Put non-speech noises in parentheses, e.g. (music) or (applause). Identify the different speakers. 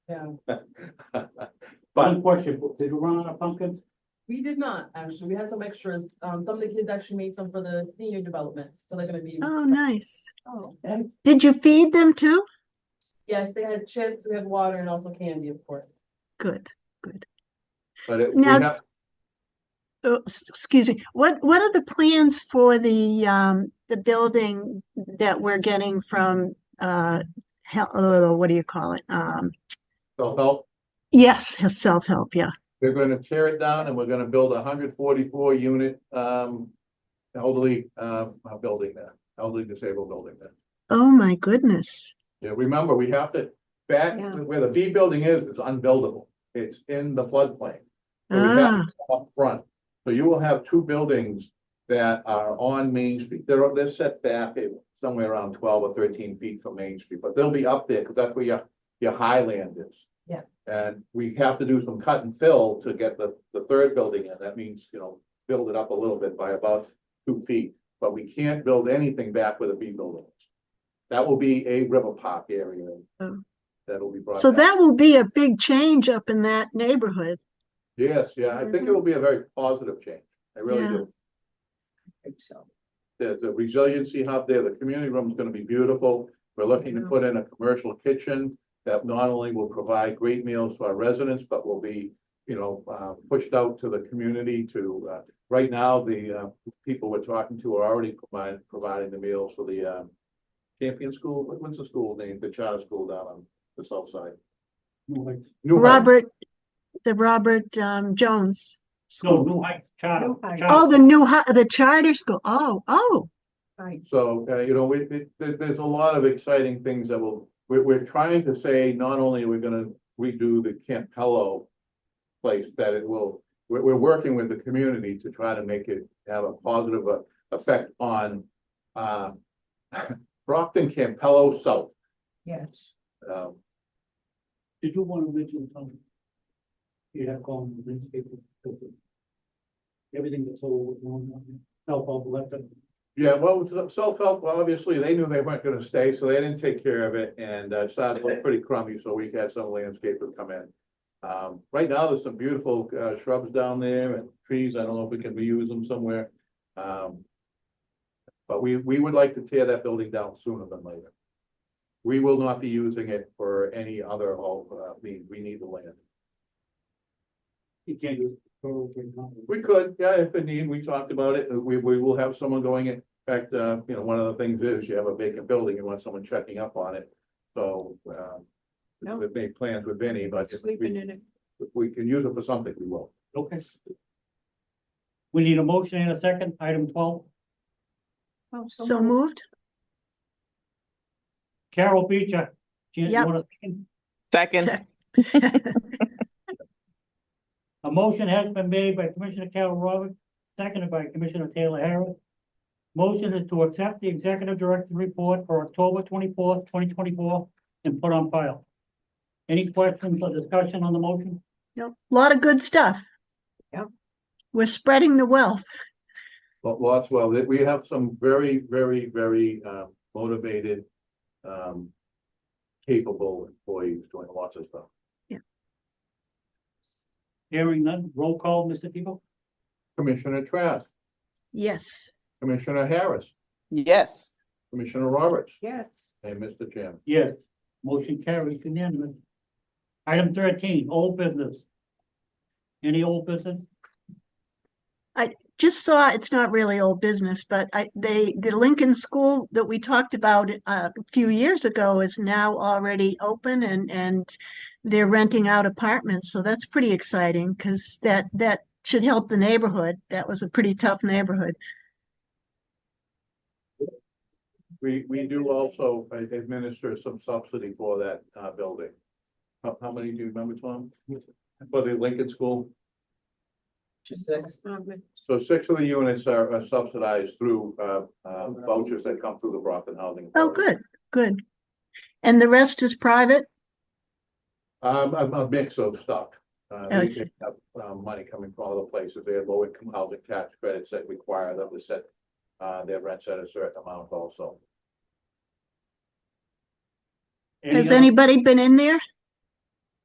Speaker 1: Yeah,
Speaker 2: (laughs) But
Speaker 3: One question, did we run out of pumpkins?
Speaker 1: we did not, actually. We had some extras. Um, some of the kids actually made some for the senior development, so they're gonna be.
Speaker 4: Oh, nice.
Speaker 1: Oh.
Speaker 4: Did you feed them too?
Speaker 1: Yes, they had chips, we had water and also candy, of course.
Speaker 4: Good.
Speaker 2: But it, we
Speaker 4: Now-
Speaker 2: have,
Speaker 4: Oh, s- excuse me. What, what are the plans for the, um, the building that we're getting from, uh, hel- uh, what do you call it? Um,
Speaker 2: so help,
Speaker 4: yes, self-help, yeah.
Speaker 2: we're gonna tear it down and we're gonna build a hundred forty-four unit, um, elderly, um, uh, building there, elderly disabled building there.
Speaker 4: Oh, my goodness.
Speaker 2: Yeah, remember, we have to, back
Speaker 4: Yeah.
Speaker 2: where the B building is, it's unbuildable. It's in the floodplain. So we
Speaker 4: Ah,
Speaker 2: have to come up front. So you will have two buildings that are on Main Street. They're, they're set back at somewhere around twelve or thirteen feet from Main Street, but they'll be up there because that's where your, your highland is.
Speaker 1: Yeah.
Speaker 2: And we have to do some cut and fill to get the, the third building in. That means, you know, build it up a little bit by about two feet. But we can't build anything back with a B building. is. That will be a river park area.
Speaker 4: Oh.
Speaker 2: That'll be brought.
Speaker 4: so
Speaker 2: back.
Speaker 4: that will be a big change up in that neighborhood.
Speaker 2: Yes, yeah, I think it will be a very positive change. I really
Speaker 4: Mm-hmm. Yeah.
Speaker 2: do. There's a resiliency hub there. The community room is gonna be beautiful. We're looking to
Speaker 4: Yeah.
Speaker 2: put in a commercial kitchen that not only will provide great meals to our residents, but will be, you know, uh, pushed out to the community to, uh, right now, the, uh, people we're talking to are already providing, providing the meals for the, um, Champion School, what- what's the school name? The charter school down on the south side.
Speaker 3: No, like-
Speaker 2: New Home.
Speaker 4: Robert, the Robert, um, Jones.
Speaker 3: No,
Speaker 4: School.
Speaker 3: no, I, charter.
Speaker 4: Oh,
Speaker 3: charter.
Speaker 4: the new, hi- the charter school. Oh, oh,
Speaker 2: So, uh, you know, we, it, there, there's a lot of exciting things that will, we're, we're trying to say, not only are we gonna redo the Campello place, that it will, we're, we're working with the community to try to make it have a positive uh, effect on, uh, (laughs) Brockton Campello South.
Speaker 1: Yes.
Speaker 2: Um,
Speaker 3: Did you want original Tony? You have gone landscape. Everything that's all wrong, help all left. it.
Speaker 2: Yeah, well, self-help, well, obviously, they knew they weren't gonna stay, so they didn't take care of it, and uh, it started to look pretty crummy, so we had some landscapers come in. Um, right now, there's some beautiful uh, shrubs down there and trees, I don't know if we can reuse them somewhere. Um, But we, we would like to tear that building down sooner than later. We will not be using it for any other, uh, we, we need the land.
Speaker 3: You can't do. it.
Speaker 2: We could, yeah, if we need, we talked about it, we, we will have someone going in. In fact, uh, you know, one of the things is you have a vacant building, you want someone checking up on it, so, um.
Speaker 5: No.
Speaker 2: We've made plans with Vinnie, but if
Speaker 5: Sleeping
Speaker 2: we,
Speaker 5: in it.
Speaker 2: if we can use it for something, we will.
Speaker 3: Okay. We need a motion and a second, item twelve.
Speaker 5: Oh,
Speaker 4: so
Speaker 5: moved.
Speaker 4: moved.
Speaker 3: Carol Beecher. Jan, you
Speaker 4: Yep.
Speaker 3: want a second?
Speaker 6: Second,
Speaker 3: A motion has been made by Commissioner Carol Roberts, seconded by Commissioner Taylor Harris. Motion is to accept the executive director report for October twenty-fourth, twenty twenty-four, and put on file. Any questions or discussion on the motion?
Speaker 4: Yep, a lot of good stuff.
Speaker 5: Yep.
Speaker 4: We're spreading the wealth.
Speaker 2: But lots, well, we have some very, very, very, uh, motivated, um. Capable employees doing lots of stuff.
Speaker 3: Hearing none, roll call, Mr. Tebow?
Speaker 2: Commissioner Trask,
Speaker 4: Yes.
Speaker 2: Commissioner Harris,
Speaker 6: yes.
Speaker 2: Commissioner Roberts,
Speaker 5: Yes,
Speaker 2: and Mr. Chairman.
Speaker 3: Yes. Motion carries unanimous. Item thirteen, old business. Any old business?
Speaker 4: Just saw, it's not really old business, but I, they, the Lincoln School that we talked about uh, a few years ago is now already open and, and they're renting out apartments. So that's pretty exciting because that, that should help the neighborhood. That was a pretty tough neighborhood.
Speaker 2: We, we do also administer some subsidy for that, uh, building. How, how many do you remember, Tom? For the Lincoln School?
Speaker 1: Six.
Speaker 5: um, it-
Speaker 2: So six of the units are are subsidized through, uh, uh, vouchers that come through the Brockton Housing.
Speaker 4: Oh,
Speaker 2: Authority.
Speaker 4: good, good. And the rest is private?
Speaker 2: Um, a, a mix of stuff. Uh,
Speaker 4: Oh, I
Speaker 2: they
Speaker 4: see.
Speaker 2: get, uh, uh, money coming from other places. They have low income housing tax credits that require them to set, uh, their rents at a certain amount also.
Speaker 3: Any
Speaker 4: Has
Speaker 3: other-
Speaker 4: anybody been in there?